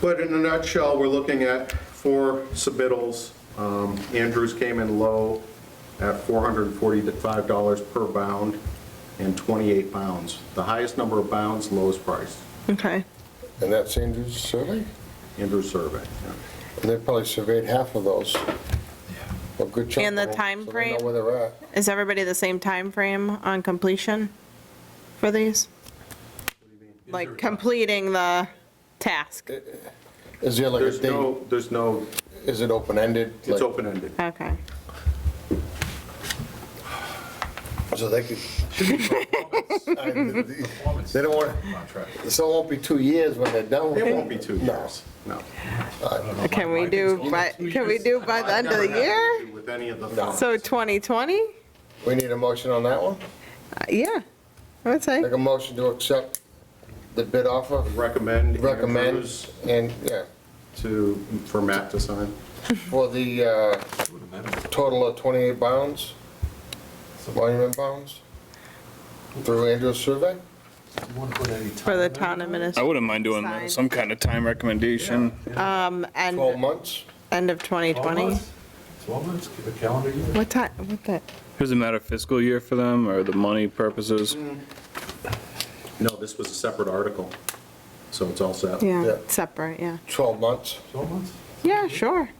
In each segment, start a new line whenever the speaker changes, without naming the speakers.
But in a nutshell, we're looking at four submittals. Um, Andrews came in low at $445 per bound and 28 pounds. The highest number of bounds, lowest price,
Okay.
And that's Andrew's survey?
Andrews survey.
And They probably surveyed half of those. A good chunk.
And the
of them,
time
So
frame?
they know where they're at.
Is everybody the same time frame on completion for these? Like completing the task?
Uh,
Is there like a
There's
date,
no, there's no,
is it open-ended?
it's
Like,
open-ended.
Okay.
So they could. They don't want,
Contract.
so it won't be two years when they're done with
It
it.
won't be two
No.
years, no.
Can we do, by? can we do by the end of the year?
With any of the
No.
funds.
So 2020?
We need a motion on that one?
Uh, Yeah, I would say.
Make a motion to accept the bid offer,
Recommend
recommend,
Andrews
and, yeah,
to, for Matt to sign.
for the uh, total of 28 bounds, monument bounds, through Andrew's survey?
For the town
I
Oh.
administration,
wouldn't mind doing
Sign.
some kind of time recommendation.
um,
12
end,
months?
end of 2020.
12 months, a calendar year.
What time, what the,
Doesn't matter fiscal year for them or the money purposes.
No, this was a separate article, so it's all set.
yeah,
Yeah.
separate, yeah.
12 months,
12 months?
Yeah, sure.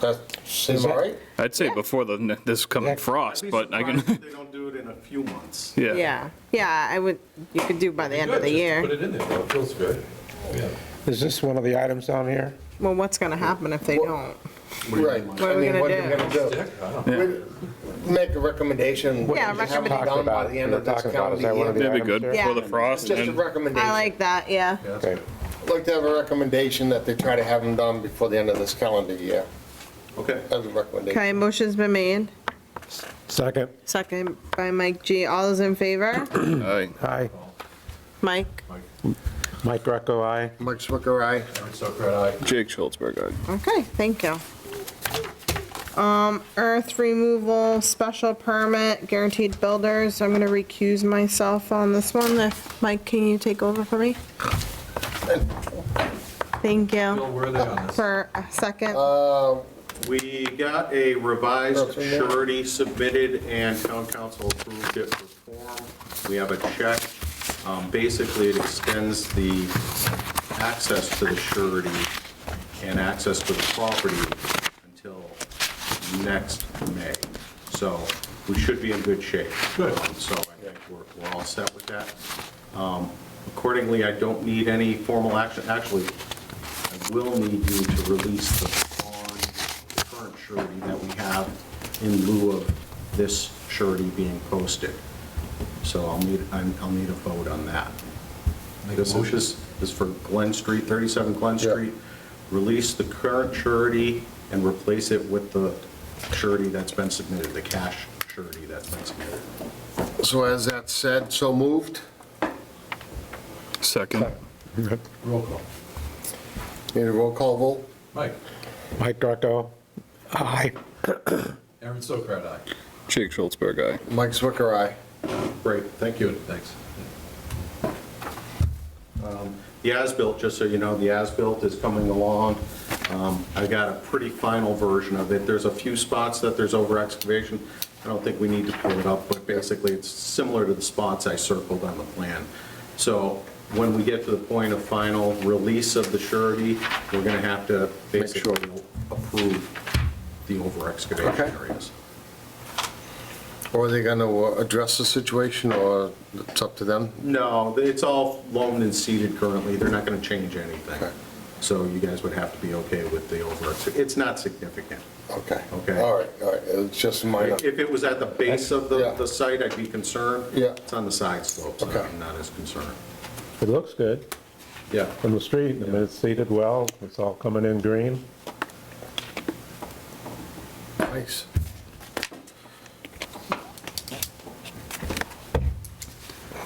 that seems all right?
I'd say before the, this coming frost,
I'd be
but I
surprised if
can,
They don't do it in a few months.
yeah.
Yeah, yeah, I would, you could do by the end of the
Good, just
year.
Put it in there, it feels good. Yeah.
Is this one of the items down here?
Well, what's gonna happen if they don't?
Right.
What are
I
we
mean,
gonna
what are we
do?
gonna
Dick, I don't know.
do? We- Make a recommendation.
Yeah,
Have it
recommendation.
Done by the end of this
Talking about, is that one of
calendar
the
year.
That'd be good
Yeah.
before the frost
Just a
and
recommendation.
I like that, yeah.
Okay.
I'd Like to have a recommendation that they try to have them done before the end of this calendar year,
Okay.
as a recommendation.
Okay, motion's been made,
Second,
second by Mike G. All those in favor?
Aye.
aye.
Mike?
Mike Greco, aye.
Mike Swicker, aye.
Aaron Sokrat, aye.
Jake Schultzberg, aye.
Okay, thank you. Um, earth removal, special permit, guaranteed builders. I'm gonna recuse myself on this one. If- Mike, can you take over for me? Thank
Bill,
you
where are they on this?
for a second.
Uh,
We got a revised
That's in there.
surety submitted and town council approved it for form. We have a check. Um, Basically, it extends the access to the surety and access to the property until next May. So we should be in good shape. Good. So I think we're, we're all set with that. Um, Accordingly, I don't need any formal action. Actually, I will need you to release the bond, the current surety that we have in lieu of this surety being posted. So I'll need, I'm- I'll need a vote on that.
Make a
This is,
motion.
this is for Glen Street, 37 Glen
Yeah.
Street. Release the current surety and replace it with the surety that's been submitted, the cash surety that's been submitted.
So as that said, so moved.
Second.
Roll call.
Need a roll call vote?
Mike,
Mike Greco, aye.
Aaron Sokrat, aye.
Jake Schultzberg, aye.
Mike Swicker, aye.
Great, thank you.
Good, thanks.
The as-built, just so you know, the as-built is coming along. Um, I got a pretty final version of it. There's a few spots that there's over excavation. I don't think we need to pull it up, but basically it's similar to the spots I circled on the plan. So when we get to the point of final release of the surety, we're going to have to basically approve the over excavation
Okay.
areas.
Or are they gonna uh, address the situation, or it's up to them?
No, it's all loaned and seeded currently, they're not gonna change anything.
Okay.
So you guys would have to be okay with the over, it's not significant.
Okay.
Okay.
All right, all right, it's just minor.
If it was at the base of the,
Yeah.
the site, I'd be concerned.
Yeah.
It's on the side slopes,
Okay.
I'm not as concerned.
It looks good
Yeah,
from the street, I mean, it's seated well, it's all coming in green.
Nice.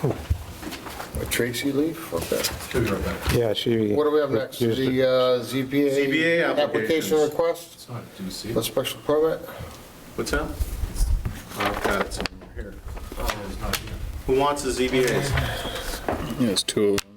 Oh. A Tracy leaf, okay.
Should be right back.
Yeah, she.
What do we have next? The
refused it.
uh, ZBA?
ZBA applications.
Application request,
It's not, do you see?
a special permit?
what's that? I've got it somewhere here.
Oh, it's not here.
Who wants the ZBAs?
Yes, two of